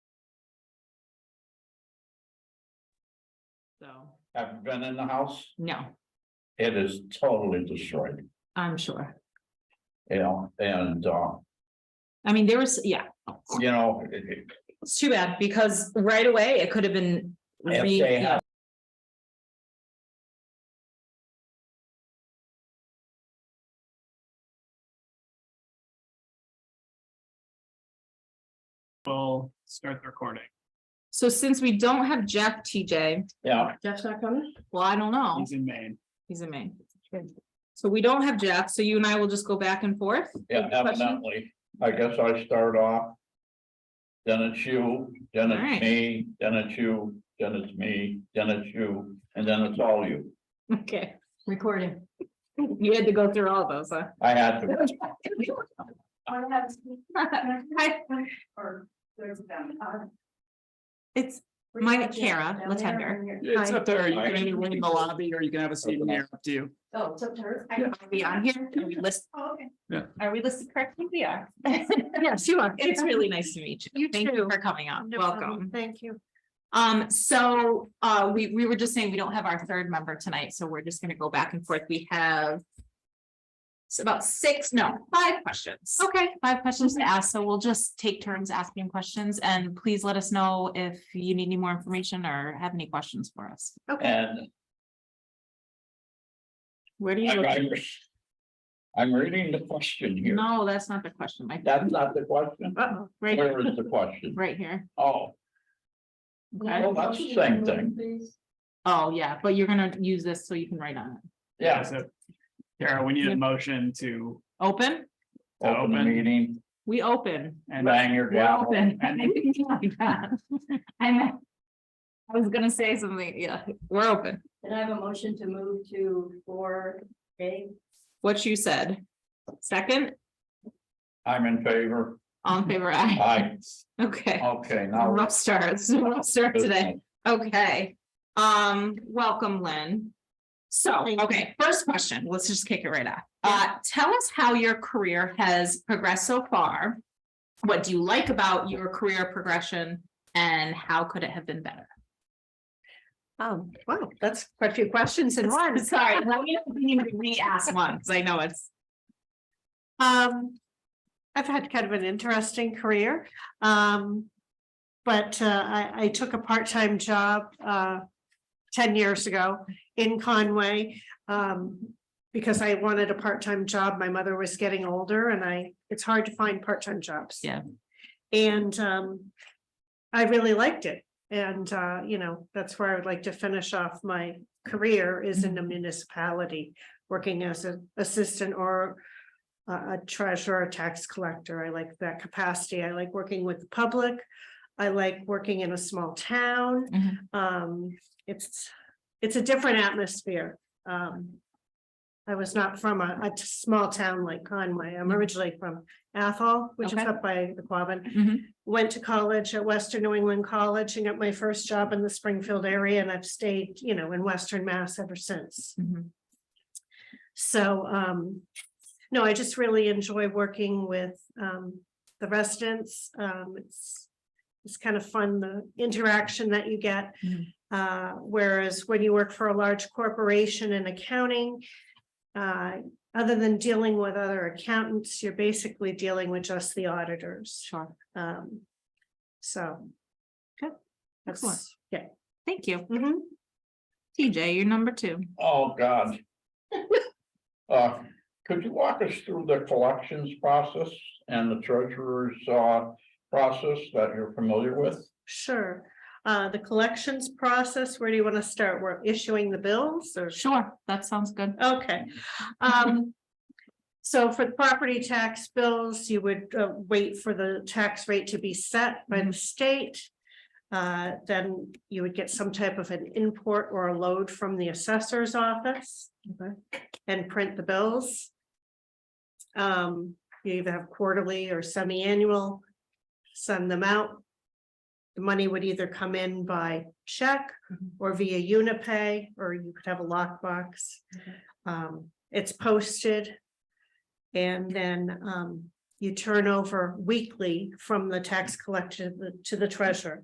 So, I've been in the house, no, it is totally destroyed, I'm sure. you know, and, uh, I mean, there was, yeah, you know, it- it- it's too bad because right away it could have been. if re- they yeah. had We'll start the recording. So since we don't have Jeff TJ, Yeah, Jeff's not coming? well, I don't know. He's in Maine. He's in Maine. So we don't have Jeff, so you and I will just go back and forth. yeah, Question? evidently, I guess I start off. Then it's you, then All right. it's me, then it's you, then it's me, then it's you, and then it's all you. Okay, Recording. you had to go through all those, huh? I had to, It's, My Kara Latender. It's Hi. up there. You can Hi. either wait in the lobby or you can have a seat in here. Up to you. Oh, it's up to her. Yeah. are we on here? Are we listed? Okay. Are we listed correctly? We are. Yes, you are. It's really nice to meet you. You Thank you too. for coming on. No problem. Welcome. Thank you. Um, so, uh, we, we were just saying we don't have our third member tonight, so we're just gonna go back and forth. We have. It's about six, no, five questions. Okay, five questions to ask, so we'll just take turns asking questions and please let us know if you need any more information or have any questions for us. and Where do I- you? I- I'm reading the question here. No, that's not the question, Mike. That's not the question. Uh-oh, Right, Where is the question? right here. Oh, Okay. well, that's the same thing. Oh, yeah, but you're gonna use this so you can write on it. Yeah, So, Kara, we need a motion to Open? open the Open. meeting, We open. and bang your Well, gavel. then, I think it's like that. I meant- I was gonna say something, yeah, we're open, And I have a motion to move to four A. what you said. Second, I'm in favor. all in favor, aye. I, okay. okay, It's a now. Rough start, it's a rough start today, okay, um, welcome, Lynn. So, Thank you. okay, first question, let's just kick it right off. Uh, tell us how your career has progressed so far. What do you like about your career progression and how could it have been better? Oh, wow, that's quite a few questions in one. Sorry, let me need to re-ask once. I know it's. Um, I've had kind of an interesting career. Um, but uh, I, I took a part-time job uh, ten years ago in Conway. Um, because I wanted a part-time job. My mother was getting older and I, it's hard to find part-time jobs. Yeah. And um, I really liked it. And uh, you know, that's where I would like to finish off my career is in a municipality, working as an assistant or a a treasurer, a tax collector. I like that capacity. I like working with the public. I like working in a small town. Mhm. Um, it's, it's a different atmosphere. Um. I was not from a, a t- small town like Conway. I'm Mhm. originally from Athol, which is Okay. up by the Quabbin. Mhm. Went to college at Western New England College and got my first job in the Springfield area and I've stayed, you know, in Western Mass ever since. mm-hmm. So, um, no, I just really enjoy working with, um, the residents. Um, it's, it's kind of fun, the interaction that you get. Mhm. Uh, whereas when you work for a large corporation in accounting, uh, other than dealing with other accountants, you're basically dealing with just the auditors. Sure. Um, so. Good. That's- Excellent. Yeah. Thank you. Mhm. TJ, you're number two. Oh, God. Uh, could you walk us through the collections process and the treasurer's, uh, process that you're familiar with? Sure. Uh, the collections process, where do you want to start? We're issuing the bills or? Sure, that sounds good. Okay, um. So for the property tax bills, you would uh, wait for the tax rate to be set by the state. Uh, then you would get some type of an import or a load from the assessor's office. And print the bills. Um, you either have quarterly or semi-annual. Send them out. The money would either come in by check or via Unipay, or you could have a lockbox. Um, it's posted. And then, um, you turn over weekly from the tax collector to the- to the treasurer.